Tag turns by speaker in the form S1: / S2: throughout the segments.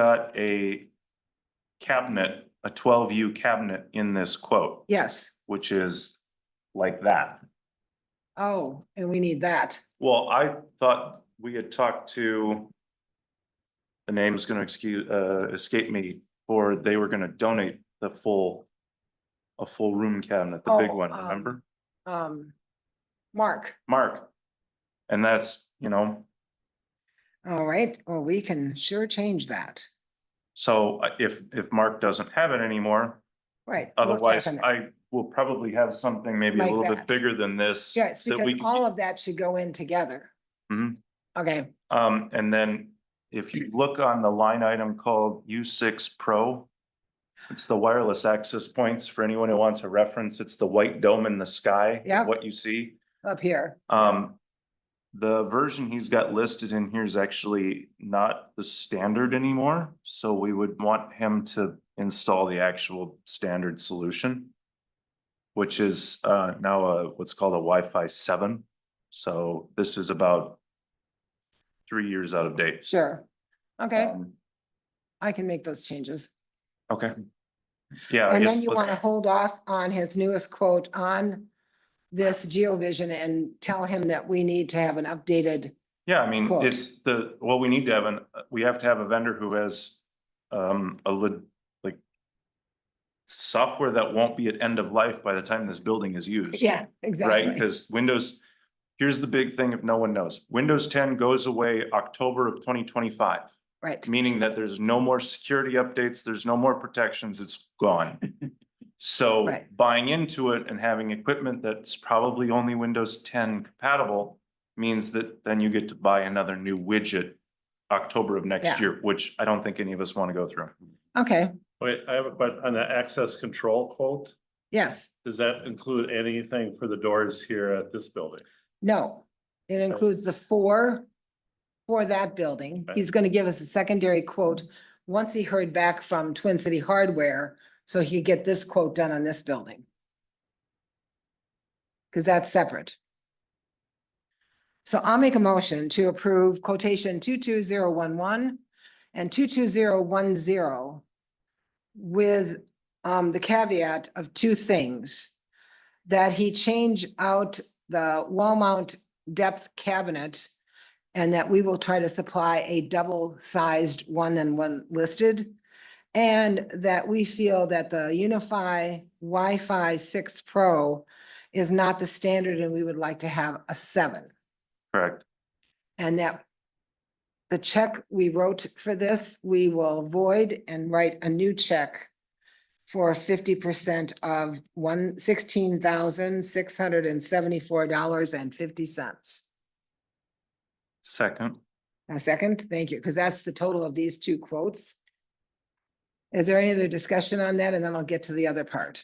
S1: got a cabinet, a twelve U cabinet in this quote,
S2: Yes.
S1: which is like that.
S2: Oh, and we need that.
S1: Well, I thought we had talked to the name's gonna excuse, uh, escape me, or they were gonna donate the full a full room cabinet, the big
S2: Oh,
S1: one,
S2: um,
S1: remember?
S2: Um, Mark,
S1: Mark. And that's, you know,
S2: all right, well, we can sure change that.
S1: so uh, if if Mark doesn't have it anymore,
S2: Right. we'll check
S1: otherwise
S2: on it.
S1: I will probably have something maybe a
S2: Like
S1: little
S2: that.
S1: bit bigger than this.
S2: Yes,
S1: that we
S2: because
S1: could
S2: all of that should go in together.
S1: Mhm.
S2: Okay,
S1: Um, and then if you look on the line item called U six Pro, it's the wireless access points for anyone who wants a reference. It's the white dome in the sky.
S2: Yeah.
S1: What you see.
S2: up here.
S1: Um, the version he's got listed in here is actually not the standard anymore. So we would want him to install the actual standard solution, which is, uh, now a, what's called a Wi-Fi seven. So this is about three years out of date.
S2: Sure. Okay,
S1: Um,
S2: I can make those changes.
S1: Okay. Yeah. I
S2: And
S1: guess
S2: then you
S1: let-
S2: want to hold off on his newest quote on this GeoVision and tell him that we need to have an updated,
S1: Yeah, I mean,
S2: Quote.
S1: it's the, well, we need to have an, we have to have a vendor who has um a lid, like. Software that won't be at end of life by the time this building is used.
S2: yeah,
S1: Right,
S2: exactly.
S1: because Windows, here's the big thing if no one knows, Windows ten goes away October of twenty twenty-five.
S2: Right,
S1: Meaning that there's no more security updates, there's no more protections, it's gone. So
S2: Right.
S1: buying into it and having equipment that's probably only Windows ten compatible means that then you get to buy another new widget October of
S2: Yeah.
S1: next year, which I don't think any of us want to go through.
S2: okay,
S3: Wait, I have a question on the access control quote.
S2: yes,
S3: Does that include anything for the doors here at this building?
S2: no. It includes the four for that building.
S3: Right.
S2: He's going to give us a secondary quote once he heard back from Twin City Hardware, so he could get this quote done on this building. Because that's separate. So I'll make a motion to approve quotation two-two-zero-one-one and two-two-zero-one-zero with um, the caveat of two things. That he change out the wall mount depth cabinet and that we will try to supply a double-sized one than one listed. And that we feel that the Unify Wi-Fi six Pro is not the standard and we would like to have a seven.
S1: Correct.
S2: And that the check we wrote for this, we will void and write a new check for fifty percent of one sixteen thousand six hundred and seventy-four dollars and fifty cents.
S1: Second,
S2: A second, thank you, because that's the total of these two quotes. Is there any other discussion on that? And then I'll get to the other part.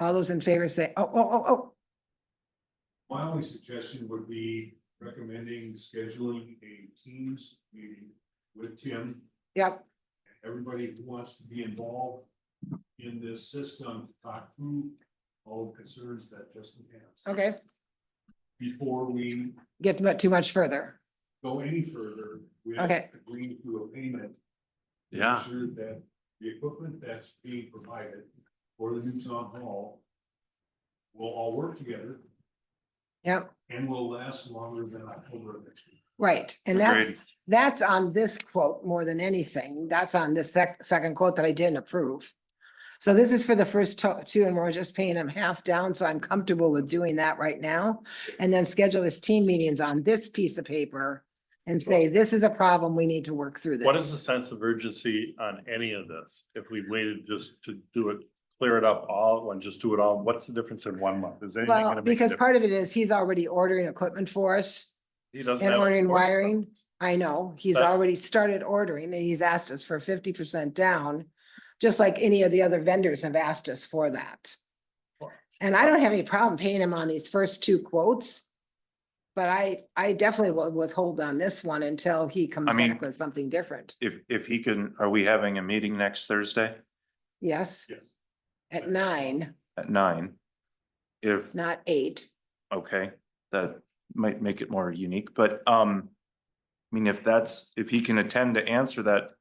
S2: All those in favor say, oh, oh, oh, oh,
S4: My only suggestion would be recommending scheduling a Teams meeting with Tim.
S2: yep,
S4: Everybody who wants to be involved in this system, to talk through all the concerns that Justin has.
S2: okay,
S4: Before we
S2: get mu- too much further.
S4: go any further with
S2: Okay. Ah.
S4: agreeing to a payment. to
S1: Yeah.
S4: Ensure that the equipment that's being provided for the new town hall will all work together
S2: Yep,
S4: and will last longer than October of next year.
S2: right, and that's, that's on this quote more than anything. That's on this sec- second quote that I didn't approve. So this is for the first to- two, and we're just paying them half down, so I'm comfortable with doing that right now. And then schedule this team meetings on this piece of paper and say, this is a problem, we need to work through this.
S3: What is the sense of urgency on any of this? If we waited just to do it, clear it up all at once, just do it all, what's the difference in one month? Is anything gonna
S2: Well,
S3: make? a
S2: because
S3: difference?
S2: part of it is he's already ordering equipment for us.
S3: He doesn't
S2: and
S3: have a
S2: ordering
S3: board.
S2: wiring. I know, he's
S3: But-
S2: already started ordering and he's asked us for fifty percent down, just like any of the other vendors have asked us for that. And I don't have any problem paying him on these first two quotes. But I, I definitely will withhold on this one until he comes
S1: I mean-
S2: back with something different.
S1: if if he can, are we having a meeting next Thursday
S2: Yes?
S4: Yes.
S2: At nine,
S1: at nine? If
S2: not eight.
S1: Okay, that might make it more unique, but um. I mean, if that's, if he can attend to answer that,